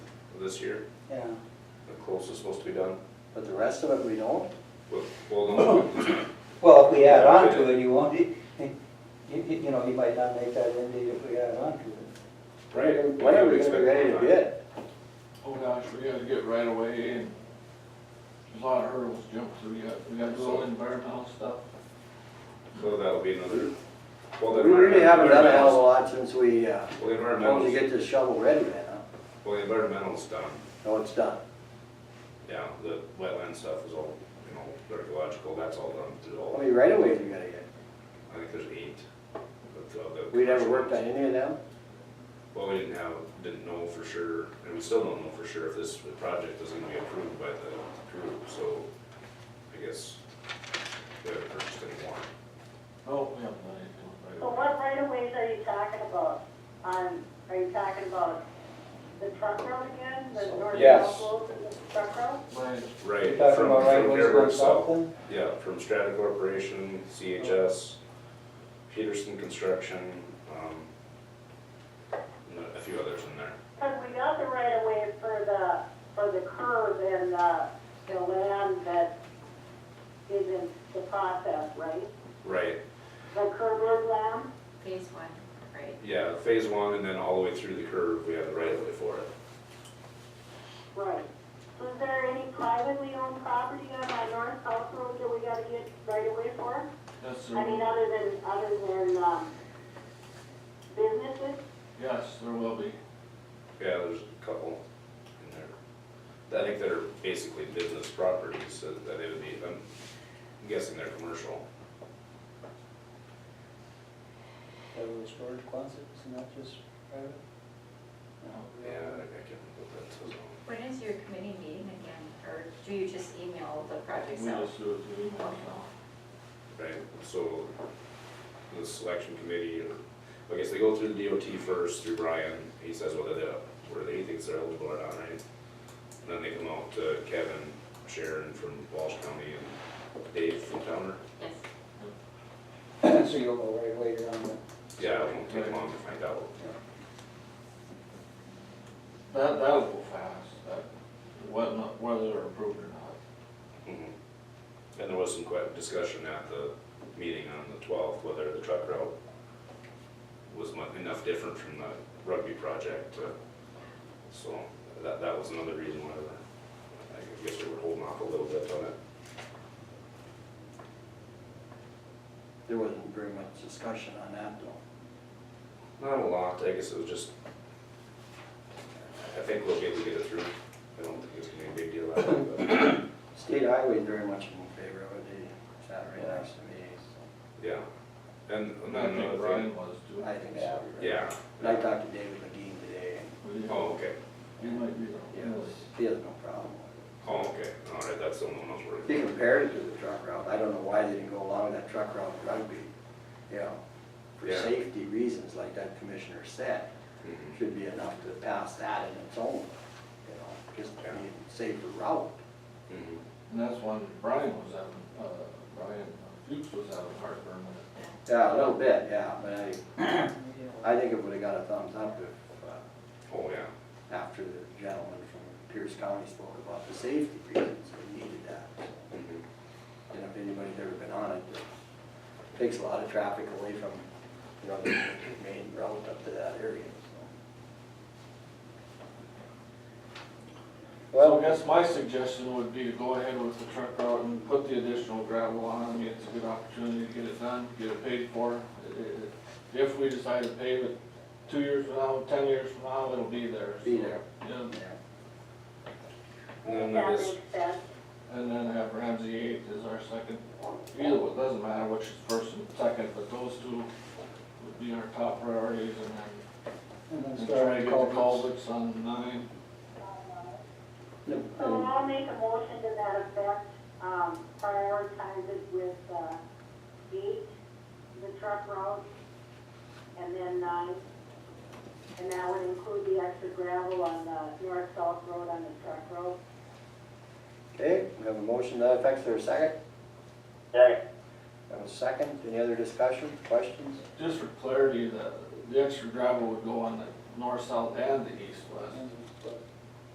this year, yeah, the close is supposed to be done. but the rest of it we don't? Well, well, no, Well, if we add on to it, you won't, you, you you know, you might not make that end date if we add on to it. right. When are we gonna be ready to bid? Oh gosh, we gotta get right away and there's a lot of hurdles to jump through. We got, we got the whole environmental stuff. So that'll be another, well, We the. really haven't done a hell of a environmental- lot since we, uh, Well, the once you environmental's, get this shovel ready, man, huh? well, the environmental's done, No, it's done. yeah, the wetland stuff is all, you know, archaeological, that's all done, did How all, many right of ways you gotta get? I think there's eight. of the- of the We never commercial worked on ones. any of them? Well, we didn't have, didn't know for sure, and we still don't know for sure if this project is gonna be approved by the group, so I guess we haven't purchased any more. Oh, we haven't done anything right So away. what right of ways are you talking about? Um, are you talking about the truck road again, the north Yes. south road and the truck road? Mine- Right. You're talking from- about right from of ways Fairburn going South. south then? Yeah, from Strata Corporation, CHS, Peterson Construction, um, and a few others in there. Cause we got the right of way for the, for the curb and, uh, the land that is in the process, right? Right, The curb road land? Phase one, right. yeah, phase one and then all the way through the curve, we have the right of way for it. Right. So is there any privately owned property on that north south road that we gotta get right away for? That's I mean, there, other than, other than, um, businesses? yes, there will be. Yeah, there's a couple in there. I think they're basically business properties, so that they would be, I'm guessing they're commercial. That was storage closets and not just private? No. Yeah, I think I can put that to zone. When is your committee meeting again, or do you just email the We projects out? just do it through email now. Right, so the selection committee, I guess they go through the DOT first, through Brian, he says whether they, whether he thinks they're eligible or not, right? And then they come out to Kevin, Sharon from Walsh County, and Dave from Towner. Yes, So you'll go right away around the, Yeah, it won't take long to find out. That, that'll go fast, that, whether, whether they're approved or not. Mhm. And there was some que- discussion at the meeting on the twelfth, whether the truck route was mu- enough different from the rugby project, uh, so that, that was another reason why we're, I guess we were holding off a little bit on it. there wasn't very much discussion on that though. Not a lot, I guess it was just, I- I think we'll be able to get it through, I don't think it's gonna be a big deal out of it, but, State highway very much in favor of it, they sat right next to me, so yeah. And, and I then think another Brian thing, was too. I think so. yeah, And I talked to David McGee today, But you- oh, okay, You might be the and only. yes, he has no problem with it. oh, okay, all right, that's the only one I was worried about. He compared it to the truck route, I don't know why they didn't go along that truck route in rugby, you know, for Yeah. safety reasons, like that commissioner said, Mhm. should be enough to pass that in its own, you know, just to be a safer route. Mhm. And that's when Brian was having, uh, Brian Fuchs was having heartburn with it. Yeah, a little bit, yeah, but I, I think it would've got a thumbs up if, uh, Oh, yeah. after the gentleman from Pierce County spoke about the safety reasons, we needed that. so. 嗯 And if anybody's ever been on it, it takes a lot of traffic away from, you know, the main route up to that area, so. So I guess my suggestion would be to go ahead with the truck route and put the additional gravel on. I mean, it's a good opportunity to get it done, get it paid for. It- it- If we decide to pave it two years from now, ten years from now, it'll be there. so, Be there. Yeah, yeah. And then That I makes guess, sense. and then have Ramsey eight as our second. Either, one, doesn't matter which is first and second, but those two would be our top priorities and then- and try to get the culverts on nine. So No, I'll make a motion to that effect, um, prioritize it with, uh, eight, the truck route, and then nine. And that would include the extra gravel on the north-south road on the truck road. Okay, we have a motion to that effect, there a second? Second. We have a second, any other discussion, questions? Just for clarity, the, the extra gravel would go on the north, south and the east, west.